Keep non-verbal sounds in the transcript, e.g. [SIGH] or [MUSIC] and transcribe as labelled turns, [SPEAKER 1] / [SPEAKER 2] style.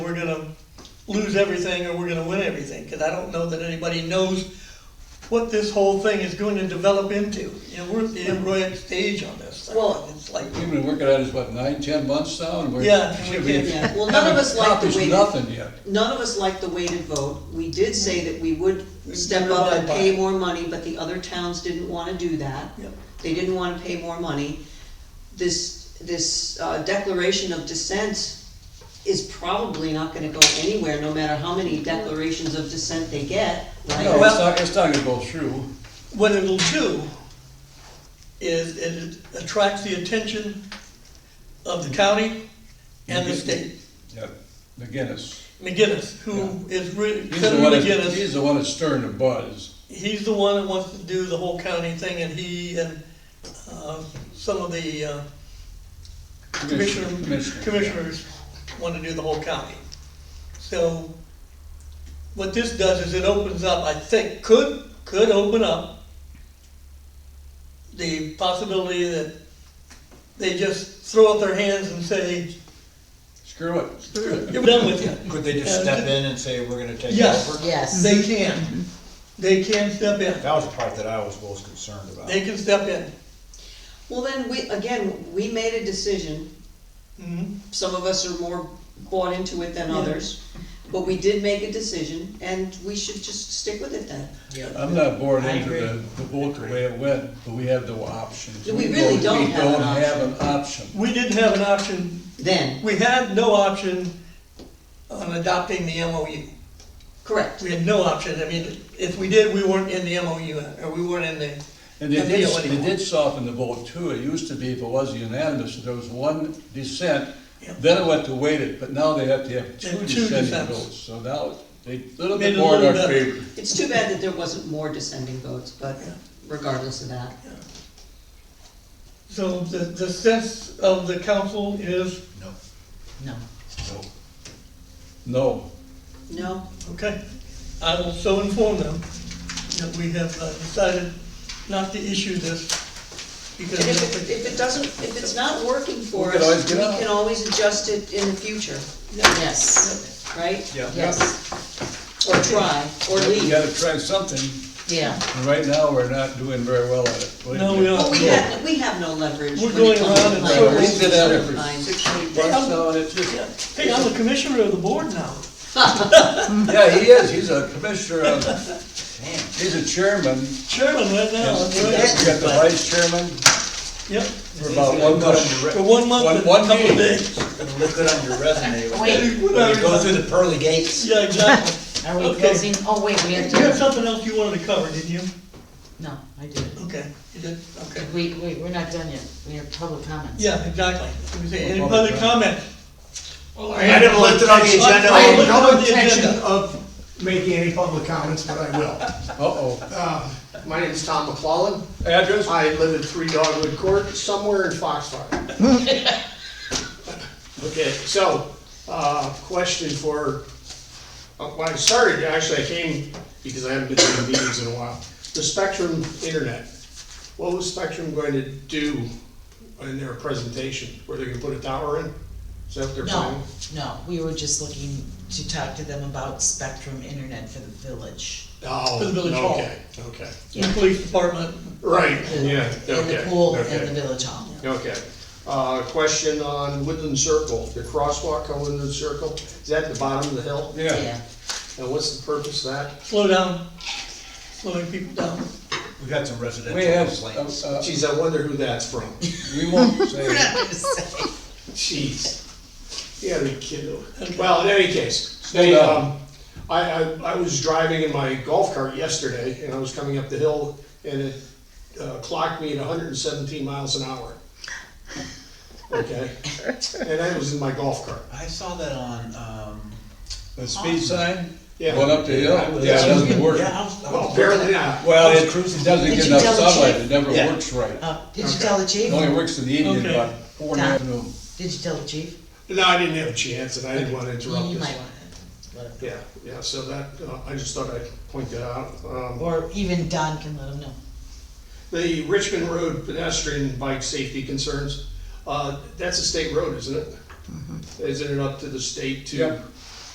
[SPEAKER 1] we're gonna lose everything or we're gonna win everything, because I don't know that anybody knows what this whole thing is going to develop into. You know, we're at the embryonic stage on this. thing.
[SPEAKER 2] Well-
[SPEAKER 1] It's like,
[SPEAKER 3] We've been working on this, what, nine, ten months now, and we're.
[SPEAKER 1] Yeah,
[SPEAKER 3] [LAUGHS]
[SPEAKER 1] we
[SPEAKER 3] should
[SPEAKER 1] did,
[SPEAKER 3] be-
[SPEAKER 1] yeah.
[SPEAKER 2] Well, none of us like the
[SPEAKER 3] accomplished
[SPEAKER 2] way-
[SPEAKER 3] Nothing yet.
[SPEAKER 2] None of us liked the weighted vote. We did say that we would step up and pay more money, but the other towns didn't wanna do that.
[SPEAKER 1] Yep.
[SPEAKER 2] They didn't wanna pay more money. This, this uh, declaration of dissent is probably not gonna go anywhere, no matter how many declarations of dissent they get,
[SPEAKER 3] No,
[SPEAKER 2] right?
[SPEAKER 3] it's
[SPEAKER 1] Well-
[SPEAKER 3] not, it's not gonna go through.
[SPEAKER 1] what it'll do is it attracts the attention of the county and the state.
[SPEAKER 3] Yeah, McGinnis.
[SPEAKER 1] McGinnis, who is really,
[SPEAKER 3] He's the one,
[SPEAKER 1] Senator
[SPEAKER 3] that-
[SPEAKER 1] McGinnis,
[SPEAKER 3] he's the one that's stirring the buzz.
[SPEAKER 1] he's the one that wants to do the whole county thing, and he and, uh, some of the, uh, commissioner,
[SPEAKER 3] Commissioner,
[SPEAKER 1] commissioners want to do the whole county. So what this does is it opens up, I think, could, could open up the possibility that they just throw up their hands and say,
[SPEAKER 3] Screw it.
[SPEAKER 1] you're done with it.
[SPEAKER 4] Could they just step in and say, we're gonna take
[SPEAKER 1] Yes.
[SPEAKER 4] over?
[SPEAKER 2] Yes.
[SPEAKER 1] They can, they can step in,
[SPEAKER 4] That was the part that I was most concerned about.
[SPEAKER 1] they can step in.
[SPEAKER 2] Well, then, we, again, we made a decision
[SPEAKER 1] Mhm.
[SPEAKER 2] some of us are more bought into it than others. But we did make a decision, and we should just stick with it then.
[SPEAKER 3] I'm not bored
[SPEAKER 5] I
[SPEAKER 3] into
[SPEAKER 5] agree.
[SPEAKER 3] the, the vote the way it went, but we have no options.
[SPEAKER 2] We really don't have an
[SPEAKER 3] We don't have an option.
[SPEAKER 1] We didn't have an option
[SPEAKER 2] Then,
[SPEAKER 1] We had no option on adopting the MOU.
[SPEAKER 2] correct.
[SPEAKER 1] We had no option, I mean, if we did, we weren't in the MOU, or we weren't in the.
[SPEAKER 3] And they did,
[SPEAKER 1] appeal
[SPEAKER 3] they
[SPEAKER 1] anymore.
[SPEAKER 3] did soften the vote too, it used to be if it was unanimous, if there was one dissent,
[SPEAKER 1] Yeah.
[SPEAKER 3] then it went to weighted, but now they have to have two
[SPEAKER 1] And two
[SPEAKER 3] dissenting
[SPEAKER 1] dissents.
[SPEAKER 3] votes, so now it's a little
[SPEAKER 1] Made
[SPEAKER 3] bit
[SPEAKER 1] it a
[SPEAKER 3] more in our
[SPEAKER 1] little better.
[SPEAKER 3] favor.
[SPEAKER 2] It's too bad that there wasn't more descending votes, but regardless of that.
[SPEAKER 1] So the, the sense of the council is,
[SPEAKER 4] No,
[SPEAKER 2] No.
[SPEAKER 4] no.
[SPEAKER 3] No,
[SPEAKER 2] No,
[SPEAKER 1] okay, I will so inform them that we have uh, decided not to issue this because.
[SPEAKER 2] and if it, if it doesn't, if it's not working for
[SPEAKER 3] We can always
[SPEAKER 2] us,
[SPEAKER 3] get
[SPEAKER 2] we
[SPEAKER 3] out.
[SPEAKER 2] can always adjust it in the future,
[SPEAKER 6] Yes,
[SPEAKER 2] right?
[SPEAKER 4] Yeah.
[SPEAKER 6] yes,
[SPEAKER 2] Or try, or
[SPEAKER 3] you
[SPEAKER 2] leave.
[SPEAKER 3] gotta try something,
[SPEAKER 6] yeah.
[SPEAKER 3] and right now, we're not doing very well at it.
[SPEAKER 1] No, we
[SPEAKER 2] But
[SPEAKER 1] aren't.
[SPEAKER 2] we have, we have no leverage.
[SPEAKER 1] We're
[SPEAKER 2] when
[SPEAKER 1] going
[SPEAKER 2] it comes to
[SPEAKER 1] around in
[SPEAKER 2] language.
[SPEAKER 3] circles. We did that for
[SPEAKER 2] Fine.
[SPEAKER 3] six, eight months now, and it's just,
[SPEAKER 1] Yeah. Hey, I'm the commissioner of the board now.
[SPEAKER 3] yeah, he is, he's a commissioner of, he's a chairman,
[SPEAKER 1] Chairman right now.
[SPEAKER 3] and
[SPEAKER 1] that's
[SPEAKER 3] we
[SPEAKER 1] right.
[SPEAKER 3] got the vice chairman
[SPEAKER 1] Yep,
[SPEAKER 3] for about one month.
[SPEAKER 1] for one month
[SPEAKER 3] One-
[SPEAKER 1] and a
[SPEAKER 3] one
[SPEAKER 1] couple of
[SPEAKER 3] meeting.
[SPEAKER 1] days.
[SPEAKER 4] It'll look good on your resume when
[SPEAKER 6] Wait,
[SPEAKER 4] you go through the pearly gates.
[SPEAKER 1] Yeah, exactly.
[SPEAKER 6] are we
[SPEAKER 1] Okay.
[SPEAKER 6] closing? Oh, wait, we have
[SPEAKER 1] You had
[SPEAKER 6] to,
[SPEAKER 1] something else you wanted to cover, didn't you?
[SPEAKER 6] no, I didn't.
[SPEAKER 1] Okay, you did, okay.
[SPEAKER 6] We, we, we're not done yet. We have public comments.
[SPEAKER 1] Yeah, exactly. Let me see, Any
[SPEAKER 3] Public
[SPEAKER 1] other comment?
[SPEAKER 4] I didn't lift it on the agenda.
[SPEAKER 7] I
[SPEAKER 1] Look
[SPEAKER 7] have
[SPEAKER 1] on
[SPEAKER 7] no
[SPEAKER 1] the
[SPEAKER 7] intention
[SPEAKER 1] agenda.
[SPEAKER 7] of making any public comments, but I will.
[SPEAKER 3] Uh-oh,
[SPEAKER 7] Uh, My name is Tom McClellan.
[SPEAKER 3] address?
[SPEAKER 7] I live at Three Dogwood Court, somewhere in Foxfire. Okay, so, uh, question for, uh, when I started, actually, I came because I haven't been to the meetings in a while. The Spectrum Internet, what was Spectrum going to do in their presentation? Were they gonna put a tower in? Is that what they're
[SPEAKER 6] No,
[SPEAKER 7] planning?
[SPEAKER 6] no, we were just looking to talk to them about Spectrum Internet for the village.
[SPEAKER 7] Oh,
[SPEAKER 1] For the village hall.
[SPEAKER 7] Okay, okay.
[SPEAKER 1] The police department,
[SPEAKER 7] Right,
[SPEAKER 6] The-
[SPEAKER 7] yeah, okay,
[SPEAKER 6] And the pool and the
[SPEAKER 7] okay,
[SPEAKER 6] village hall.
[SPEAKER 7] okay. Uh, question on Woodland Circle, the crosswalk on Woodland Circle, is that at the bottom of the hill?
[SPEAKER 3] Yeah,
[SPEAKER 7] And what's the purpose of that?
[SPEAKER 1] slow down, slowing people down.
[SPEAKER 4] We've got some
[SPEAKER 3] we have,
[SPEAKER 4] residential
[SPEAKER 3] uh,
[SPEAKER 4] complaints.
[SPEAKER 3] uh,
[SPEAKER 7] Geez, I wonder who that's from.
[SPEAKER 3] we
[SPEAKER 1] [LAUGHS]
[SPEAKER 3] won't say.
[SPEAKER 6] We're not gonna say.
[SPEAKER 7] Jeez. You gotta be kidding. Well, in any case, they,
[SPEAKER 3] Slow down.
[SPEAKER 7] um, I, I, I was driving in my golf cart yesterday and I was coming up the hill and it uh, clocked me at hundred and seventeen miles an hour. Okay? And I was in my golf cart.
[SPEAKER 4] I saw that on, um.
[SPEAKER 3] The speed sign,
[SPEAKER 7] Yeah.
[SPEAKER 3] going up the hill, that doesn't work.
[SPEAKER 4] Yeah, I was, I
[SPEAKER 7] Well,
[SPEAKER 4] was.
[SPEAKER 7] apparently not.
[SPEAKER 3] Well, it doesn't get
[SPEAKER 6] Did you
[SPEAKER 3] enough
[SPEAKER 6] tell the
[SPEAKER 3] sunlight,
[SPEAKER 6] chief?
[SPEAKER 3] it never
[SPEAKER 4] Yeah.
[SPEAKER 3] works right.
[SPEAKER 6] [LAUGHS] Uh, did you
[SPEAKER 7] Okay.
[SPEAKER 6] tell the chief?
[SPEAKER 3] It only works in the evening,
[SPEAKER 1] Okay.
[SPEAKER 3] about four in the
[SPEAKER 6] Done.
[SPEAKER 3] afternoon.
[SPEAKER 6] Did you tell the chief?
[SPEAKER 7] No, I didn't have a chance, and I didn't want to interrupt
[SPEAKER 6] You might
[SPEAKER 7] this.
[SPEAKER 6] wanna, let him
[SPEAKER 7] Yeah, yeah, so that, uh, I just thought I'd point that out.
[SPEAKER 6] know.
[SPEAKER 7] Um,
[SPEAKER 6] Or even Don can let him know.
[SPEAKER 7] The Richmond Road pedestrian and bike safety concerns, uh, that's a state road, isn't it? Isn't it up to the state to
[SPEAKER 3] Yep.